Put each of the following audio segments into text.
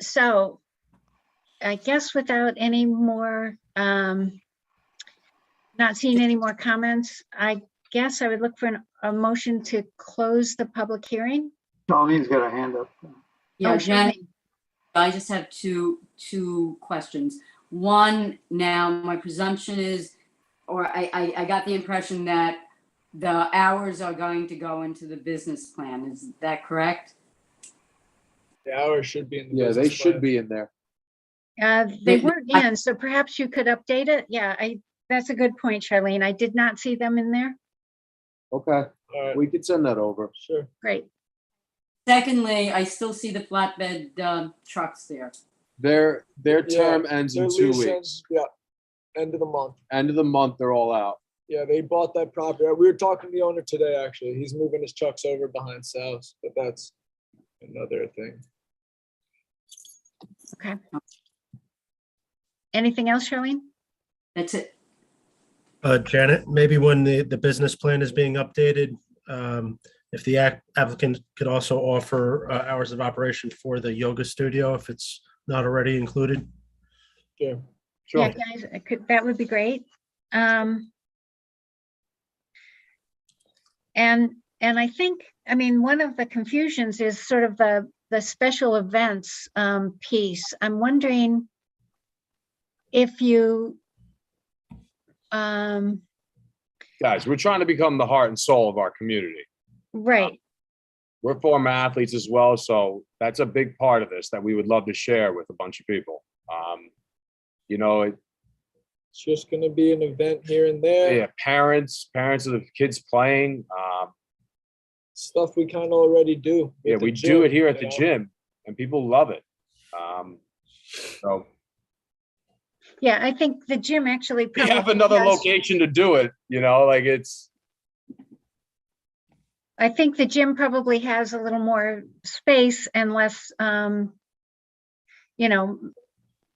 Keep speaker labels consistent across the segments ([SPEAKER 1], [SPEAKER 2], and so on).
[SPEAKER 1] so I guess without any more, um, not seeing any more comments, I guess I would look for an- a motion to close the public hearing.
[SPEAKER 2] Darlene's got a hand up.
[SPEAKER 1] Oh,
[SPEAKER 3] Yeah,
[SPEAKER 1] excuse
[SPEAKER 3] Janet,
[SPEAKER 1] me.
[SPEAKER 3] I just have two, two questions. One, now, my presumption is, or I, I, I got the impression that the hours are going to go into the business plan. Is that correct?
[SPEAKER 4] The hours should be in the.
[SPEAKER 5] Yeah, they
[SPEAKER 4] business
[SPEAKER 5] should
[SPEAKER 4] plan.
[SPEAKER 5] be in there.
[SPEAKER 1] Uh, they
[SPEAKER 3] They-
[SPEAKER 1] weren't
[SPEAKER 3] I-
[SPEAKER 1] in, so perhaps you could update it. Yeah, I, that's a good point, Charlene. I did not see them in there.
[SPEAKER 5] Okay,
[SPEAKER 4] All right,
[SPEAKER 5] we could send that over.
[SPEAKER 4] sure.
[SPEAKER 1] Great.
[SPEAKER 3] Secondly, I still see the flatbed um, trucks there.
[SPEAKER 5] Their, their
[SPEAKER 4] Yeah,
[SPEAKER 5] term ends
[SPEAKER 4] Their
[SPEAKER 5] in two
[SPEAKER 4] lease
[SPEAKER 5] weeks.
[SPEAKER 4] ends- Yeah, end of the month.
[SPEAKER 5] End of the month, they're all out.
[SPEAKER 4] Yeah, they bought that property. Uh, We were talking to the owner today, actually. He's moving his trucks over behind Sal's, but that's another thing.
[SPEAKER 1] Anything else, Charlene?
[SPEAKER 3] That's it.
[SPEAKER 6] Uh, Janet, maybe when the, the business plan is being updated, um, if the ac- applicant could also offer uh, hours of operation for the yoga studio, if it's not already included.
[SPEAKER 4] Sure.
[SPEAKER 1] Yeah,
[SPEAKER 5] Sure.
[SPEAKER 1] guys, I could, that would be great. Um. And, and I think, I mean, one of the confusions is sort of the, the special events um piece. I'm wondering if you um,
[SPEAKER 5] Guys, we're trying to become the heart and soul of our community.
[SPEAKER 1] right,
[SPEAKER 5] We're former athletes as well, so that's a big part of this that we would love to share with a bunch of people. Um, You know, it-
[SPEAKER 4] It's just gonna be an event here and there,
[SPEAKER 5] yeah, parents, parents of the kids playing. um,
[SPEAKER 4] stuff we kind of already do. with
[SPEAKER 5] Yeah,
[SPEAKER 4] the
[SPEAKER 5] we do
[SPEAKER 4] gym,
[SPEAKER 5] it here at
[SPEAKER 4] you
[SPEAKER 5] the
[SPEAKER 4] know?
[SPEAKER 5] gym and people love it. Um, So
[SPEAKER 1] yeah, I think the gym actually.
[SPEAKER 5] we have
[SPEAKER 1] probably
[SPEAKER 5] another
[SPEAKER 1] does-
[SPEAKER 5] location to do it, you know, like it's,
[SPEAKER 1] I think the gym probably has a little more space and less, um, you know,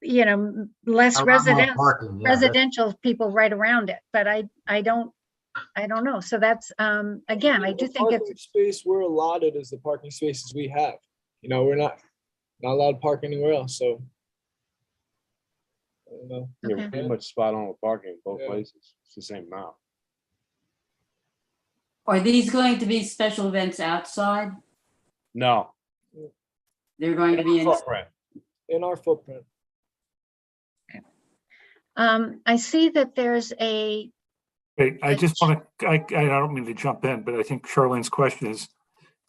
[SPEAKER 1] you know, m- less residents, residential people right around it, but I, I don't, I don't know. So that's, um, again, I
[SPEAKER 4] The
[SPEAKER 1] do think it's,
[SPEAKER 4] parking Space we're allotted is the parking spaces we have. You know, we're not, not allowed to park anywhere else, so. I don't know.
[SPEAKER 5] you're
[SPEAKER 1] Okay.
[SPEAKER 5] pretty much spot on with parking both
[SPEAKER 4] Yeah.
[SPEAKER 5] places. It's the same amount.
[SPEAKER 3] Are these going to be special events outside?
[SPEAKER 5] No.
[SPEAKER 3] They're going to be in,
[SPEAKER 5] Footprint.
[SPEAKER 4] In our footprint.
[SPEAKER 1] um, I see that there's a,
[SPEAKER 7] Wait, I
[SPEAKER 1] But-
[SPEAKER 7] just want to, I, I don't mean to jump in, but I think Charlene's question is,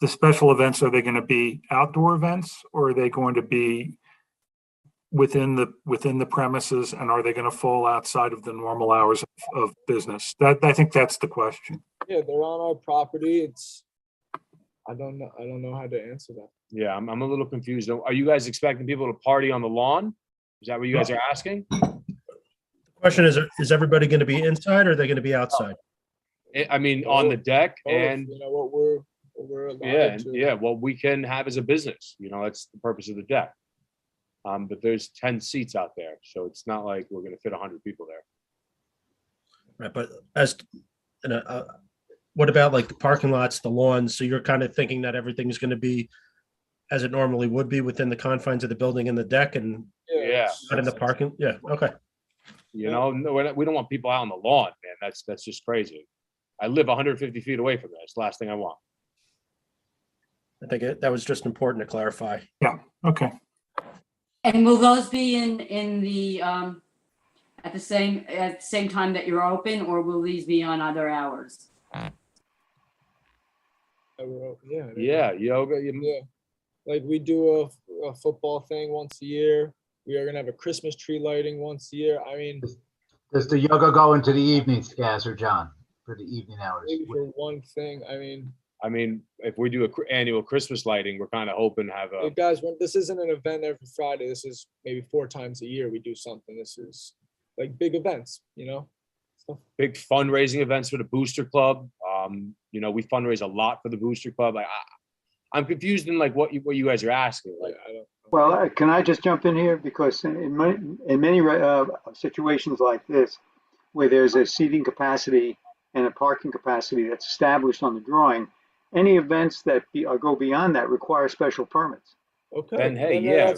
[SPEAKER 7] the special events, are they going to be outdoor events or are they going to be within the, within the premises and are they going to fall outside of the normal hours of- of business? That, I think that's the question.
[SPEAKER 4] Yeah, they're on our property. It's, I don't know, I don't know how to answer that.
[SPEAKER 5] Yeah, I'm, I'm a little confused. Are you guys expecting people to party on the lawn? Is that what you guys are asking?
[SPEAKER 6] The Question is, is everybody going to be inside or are they going to be outside?
[SPEAKER 5] Eh, I- I mean, on the deck
[SPEAKER 4] Both,
[SPEAKER 5] and,
[SPEAKER 4] Oh, You know, what we're, what we're
[SPEAKER 5] yeah,
[SPEAKER 4] allowed
[SPEAKER 5] and-
[SPEAKER 4] to.
[SPEAKER 5] yeah, what we can have as a business, you know, that's the purpose of the deck. Um, but there's ten seats out there, so it's not like we're gonna fit hundred people there.
[SPEAKER 6] Right, but as, and, uh, what about like the parking lots, the lawns? So you're kind of thinking that everything's going to be as it normally would be within the confines of the building and the deck and
[SPEAKER 5] yeah.
[SPEAKER 4] it's-
[SPEAKER 6] not in the parking? Yeah, okay.
[SPEAKER 5] You
[SPEAKER 4] Yeah.
[SPEAKER 5] know, no, we're not, we don't want people out on the lawn, man. That's, that's just crazy. I live hundred fifty feet away from that. It's the last thing I want.
[SPEAKER 6] I think it- that was just important to clarify.
[SPEAKER 7] Okay.
[SPEAKER 3] and will those be in, in the, um, at the same, at the same time that you're open or will these be on other hours?
[SPEAKER 4] I wrote- Yeah. I don't know.
[SPEAKER 5] Yeah, yoga, you-
[SPEAKER 4] Yeah. Like we do a, f- a football thing once a year. We are gonna have a Christmas tree lighting once a year. I mean,
[SPEAKER 2] Does the yoga go into the evenings, Gaz or John, for the evening hours?
[SPEAKER 4] maybe for one thing, I mean,
[SPEAKER 5] I mean, if we do a cr- annual Christmas lighting, we're kind of hoping to have
[SPEAKER 4] hey,
[SPEAKER 5] a,
[SPEAKER 4] guys, when- this isn't an event every Friday. This is maybe four times a year we do something. This is like big events, you know? Stuff
[SPEAKER 5] big fundraising events for the Booster Club. Um, you know, we fundraise a lot for the Booster Club. I, I, I'm confused in like what you, what you guys are asking. Like,
[SPEAKER 4] Like, I don't.
[SPEAKER 2] Well, uh, can I just jump in here? Because in- in many, in many uh, situations like this, where there's a seating capacity and a parking capacity that's established on the drawing, any events that be- uh, go beyond that require special permits.
[SPEAKER 4] Okay.
[SPEAKER 5] Then, hey,
[SPEAKER 4] then uh,
[SPEAKER 5] yeah,
[SPEAKER 4] that's